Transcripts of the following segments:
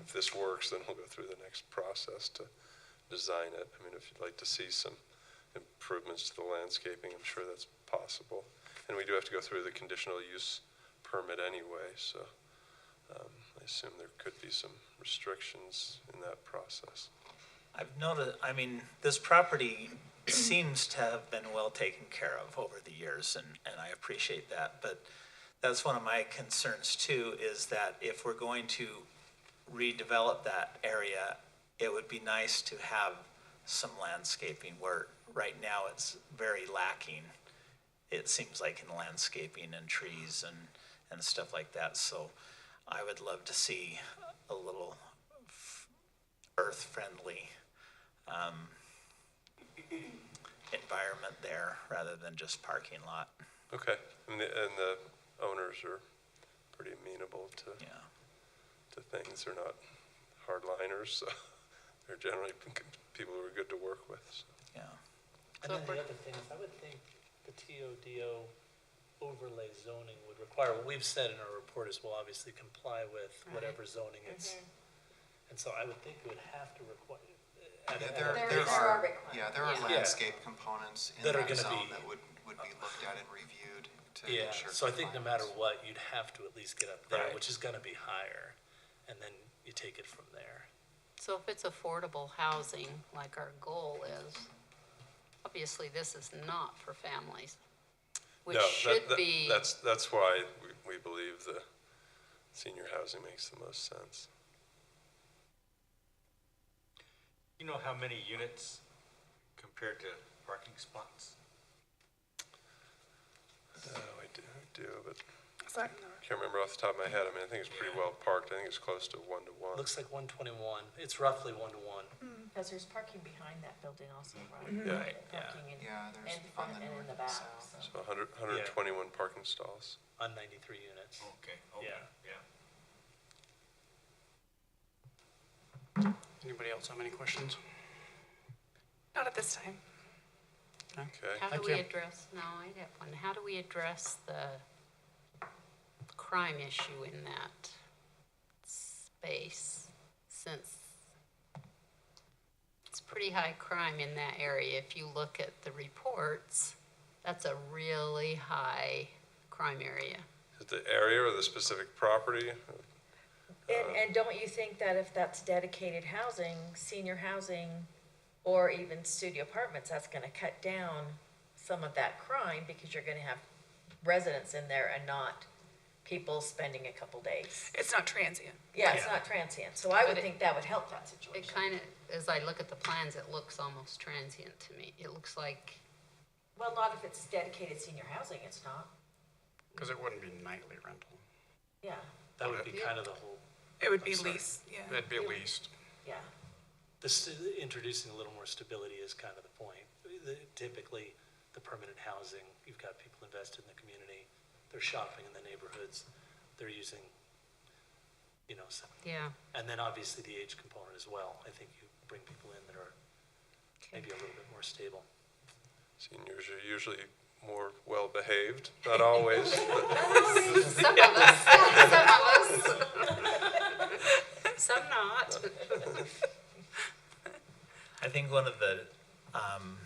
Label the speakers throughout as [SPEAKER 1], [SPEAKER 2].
[SPEAKER 1] if this works, then we'll go through the next process to design it. I mean, if you'd like to see some improvements to the landscaping, I'm sure that's possible. And we do have to go through the conditional use permit anyway, so um, I assume there could be some restrictions in that process.
[SPEAKER 2] I've noticed, I mean, this property seems to have been well taken care of over the years, and, and I appreciate that. But that's one of my concerns too, is that if we're going to redevelop that area, it would be nice to have some landscaping where right now it's very lacking. It seems like in landscaping and trees and, and stuff like that. So I would love to see a little earth-friendly um, environment there rather than just parking lot,
[SPEAKER 1] Okay, and the, and the owners are pretty amenable to,
[SPEAKER 2] yeah.
[SPEAKER 1] to things. They're not hardliners, so they're generally people who are good to work with, so.
[SPEAKER 2] Yeah,
[SPEAKER 3] And then the other thing is, I would think the TODO overlay zoning would require, what we've said in our report is we'll obviously comply with whatever zoning it's. And so I would think it would have to require. at-
[SPEAKER 4] Yeah,
[SPEAKER 3] at a-
[SPEAKER 5] There-
[SPEAKER 4] there, there
[SPEAKER 5] there are
[SPEAKER 4] are,
[SPEAKER 5] requirements,
[SPEAKER 4] yeah, there are
[SPEAKER 5] yeah.
[SPEAKER 4] landscape components in
[SPEAKER 3] That are
[SPEAKER 4] that
[SPEAKER 3] gonna
[SPEAKER 4] zone
[SPEAKER 3] be-
[SPEAKER 4] that would, would be looked at and reviewed to
[SPEAKER 3] Yeah,
[SPEAKER 4] ensure.
[SPEAKER 3] so I think no matter
[SPEAKER 4] compliance.
[SPEAKER 3] what, you'd have to at least get up there,
[SPEAKER 2] Right.
[SPEAKER 3] which is gonna be higher, and then you take it from there.
[SPEAKER 5] So if it's affordable housing, like our goal is, obviously this is not for families, which
[SPEAKER 1] No, that-
[SPEAKER 5] should
[SPEAKER 1] that-
[SPEAKER 5] be,
[SPEAKER 1] That's, that's why we, we believe the senior housing makes the most sense.
[SPEAKER 6] You know how many units compared to parking spots?
[SPEAKER 1] No, Oh, I do, I do, but I can't remember off the top of my head. I mean, I think it's pretty well parked. I think it's close to one to one.
[SPEAKER 3] Looks like one twenty-one, it's roughly one to one.
[SPEAKER 7] Because there's parking behind that building also, right?
[SPEAKER 1] Yeah,
[SPEAKER 3] yeah.
[SPEAKER 7] Parking in,
[SPEAKER 4] Mm-hmm. Yeah, there's
[SPEAKER 7] and
[SPEAKER 4] on the
[SPEAKER 7] front and in
[SPEAKER 4] north
[SPEAKER 7] the
[SPEAKER 4] and
[SPEAKER 7] back,
[SPEAKER 4] south.
[SPEAKER 1] so
[SPEAKER 7] so.
[SPEAKER 1] 100 121 parking stalls.
[SPEAKER 3] On ninety-three units.
[SPEAKER 6] Okay,
[SPEAKER 3] Yeah.
[SPEAKER 6] yeah.
[SPEAKER 8] Anybody else have any questions?
[SPEAKER 9] Not at this time.
[SPEAKER 1] Okay,
[SPEAKER 5] how do
[SPEAKER 8] Thank
[SPEAKER 5] we
[SPEAKER 8] you.
[SPEAKER 5] address, no, I have one, how do we address the crime issue in that space? Since it's pretty high crime in that area, if you look at the reports, that's a really high crime area.
[SPEAKER 1] is the area or the specific property? uh,
[SPEAKER 7] And, and don't you think that if that's dedicated housing, senior housing, or even studio apartments, that's gonna cut down some of that crime because you're gonna have residents in there and not people spending a couple days.
[SPEAKER 9] It's not transient.
[SPEAKER 7] Yeah, it's not transient, so I would
[SPEAKER 5] But it-
[SPEAKER 7] think that would help that
[SPEAKER 5] It
[SPEAKER 7] situation.
[SPEAKER 5] kind of, as I look at the plans, it looks almost transient to me. It looks like,
[SPEAKER 7] Well, not if it's dedicated senior housing, it's not,
[SPEAKER 8] Because it wouldn't be nightly rental.
[SPEAKER 7] yeah,
[SPEAKER 3] That would be kind of the whole
[SPEAKER 9] It would be lease, yeah.
[SPEAKER 8] That'd be leased.
[SPEAKER 7] yeah.
[SPEAKER 3] This, introducing a little more stability is kind of the point. The- Typically, the permanent housing, you've got people invested in the community, they're shopping in the neighborhoods, they're using, you know, some-
[SPEAKER 5] yeah.
[SPEAKER 3] and then obviously the age component as well. I think you bring people in that are maybe a little bit more stable.
[SPEAKER 1] Seniors are usually more well-behaved, not always, but
[SPEAKER 5] Some of us, some of us. Some not.
[SPEAKER 2] I think one of the um,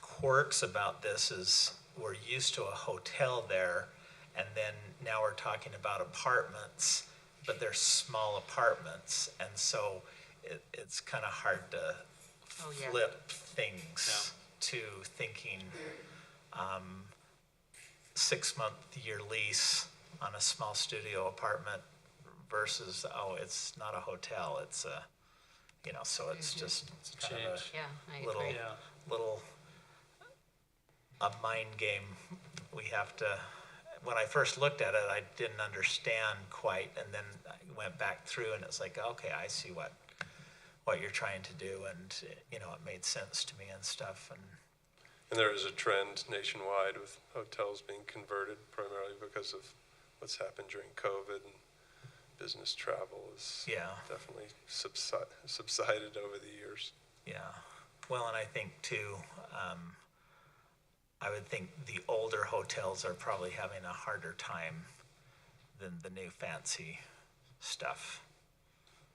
[SPEAKER 2] quirks about this is we're used to a hotel there, and then now we're talking about apartments, but they're small apartments, and so it, it's kind of hard to
[SPEAKER 5] Oh, yeah.
[SPEAKER 2] flip things to thinking um, six-month year lease on a small studio apartment versus, oh, it's not a hotel, it's a, you know, so it's just kind of a
[SPEAKER 5] Yeah, I
[SPEAKER 2] little,
[SPEAKER 5] agree.
[SPEAKER 3] Yeah.
[SPEAKER 2] little, a mind game. We have to, when I first looked at it, I didn't understand quite, and then I went back through and it's like, okay, I see what, what you're trying to do, and, you know, it made sense to me and stuff, and,
[SPEAKER 1] and there is a trend nationwide with hotels being converted primarily because of what's happened during COVID and business travel is
[SPEAKER 2] yeah.
[SPEAKER 1] definitely subside, subsided over the years.
[SPEAKER 2] Yeah. Well, and I think too, um, I would think the older hotels are probably having a harder time than the new fancy stuff.